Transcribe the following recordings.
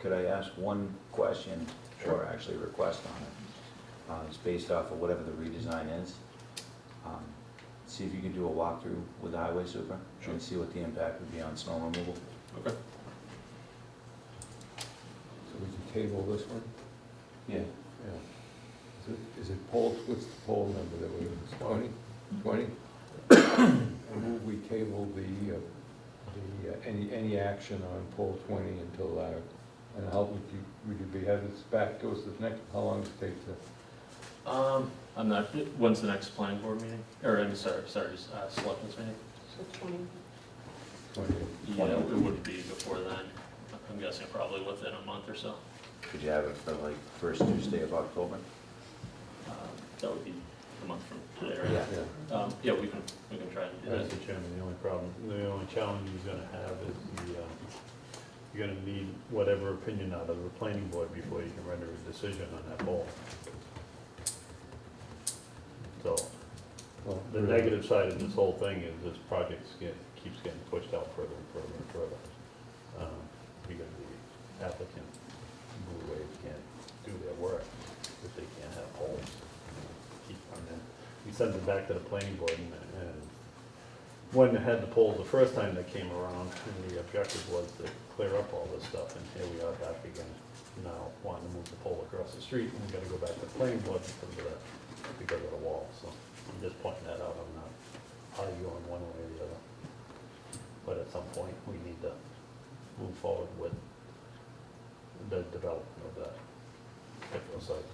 could I ask one question or actually request on it? Uh, It's based off of whatever the redesign is. Um, See if you can do a walkthrough with the highway super Sure. and see what the impact would be on snow removal. Okay. So we can table this one? Yeah. Yeah. Is it, is it poll, what's the poll number that we, twenty, twenty? I move we table the, uh, the, uh, any, any action on poll twenty until, uh, and how would you, would you be, have this back to us the next, how long does it take to? Um, I'm not, when's the next planning board meeting? Or, I'm sorry, sorry, uh, selectmen's meeting? So twenty, twenty? Yeah, it would be before then. I'm guessing probably within a month or so. Could you have it for like first Tuesday of October? Um, That would be a month from today, Yeah. right? Um, yeah, we can, we can try and do that. Mr. Chairman, the only problem, the only challenge you're gonna have is the, uh, you're gonna need whatever opinion out of the planning board before you can render a decision on that poll. So, Well, the negative side of this whole thing is this project keeps getting pushed out further and further and further. Um, Because the applicant, Blue Wave, can't do their work if they can't have holes. Keep on that. We sent it back to the planning board and, and when they had the polls the first time they came around, and the objective was to clear up all this stuff, and here we are back again now wanting to move the pole across the street, and we gotta go back to the planning board because of the, because of the wall, so I'm just pointing that out, I'm not arguing one way or the other. But at some point, we need to move forward with the development of that particular site.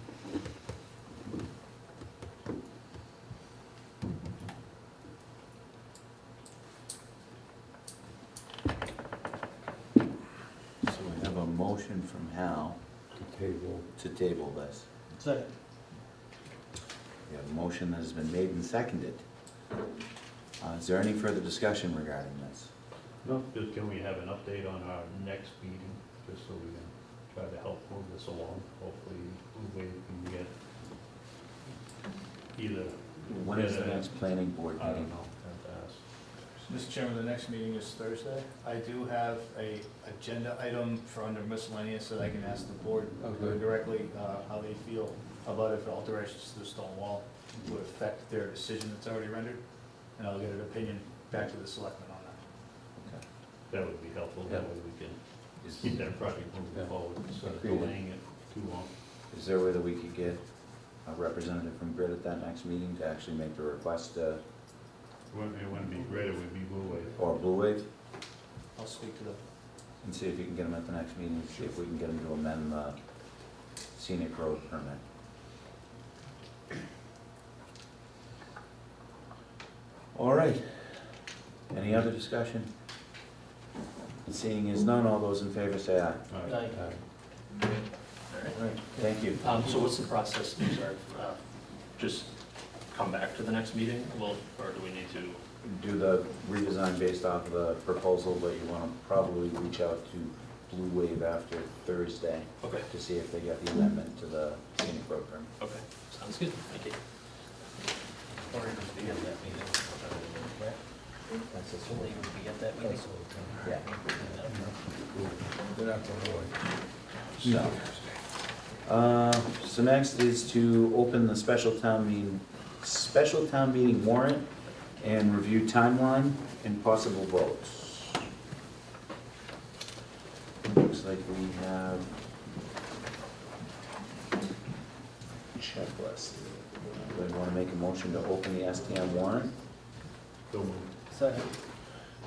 So we have a motion from Hal To table, to table this. Second. We have a motion that has been made and seconded. Uh, Is there any further discussion regarding this? No, just can we have an update on our next meeting, just so we can try to help move this along, hopefully, we can get either. When is the next planning board I don't meeting? know, have to ask. Mr. Chairman, the next meeting is Thursday. I do have a agenda item for under miscellaneous that I can ask the board Okay. directly uh, how they feel about if alterations to the stone wall would affect their decision that's already rendered, and I'll get an opinion back to the selectmen on that. That would be helpful, that way we can Is- keep that project moving Yeah. forward, instead of Agreed. delaying it too long. Is there a way that we could get a representative from Grid at that next meeting to actually make the request, uh, It wouldn't, it wouldn't be great, it would be Blue Wave. or Blue Wave? I'll speak to the, And see if you can get them at the next meeting, see if we can get them to amend the scenic road permit. All right. Any other discussion? Seeing as none, all those in favor say aye. All right. All uh, right. All right. Thank you. Um, so what's the process, I'm sorry, uh, just come back to the next meeting? Well, or do we need to? do the redesign based off of the proposal, but you want to probably reach out to Blue Wave after Thursday Okay, to see if they got the amendment to the scenic road permit. okay, sounds good, thank you. Or it would be at that meeting. right? That's So they would be at that meeting. Yeah. they're not going away. So, uh, so next is to open the special town meeting, special town meeting warrant and review timeline and possible votes. Looks like we have checklist. Do we want to make a motion to open the STM warrant? So moved. Second.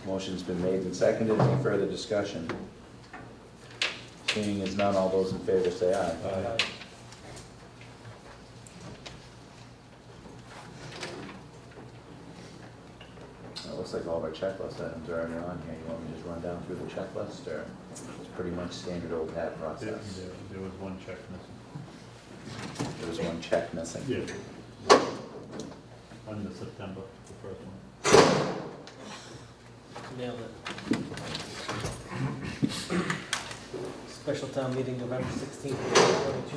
Motion's been made and seconded. Any further discussion? Seeing as none, all those in favor say aye. Uh, It looks like all of our checklist items are already on here. You want me to just run down through the checklist, or it's pretty much standard old hat There, process? there- there was one check missing. There was one check missing. Under September, the first one. Nailed it. Special town meeting November sixteenth,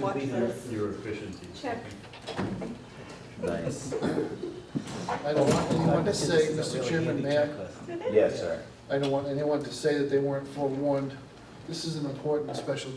Watch twenty-two. this. Your efficiencies. Check. Nice. I don't want anyone to say, Mr. Chairman, may I, Yes, sir. I don't want anyone to say that they weren't forewarned. This is an important special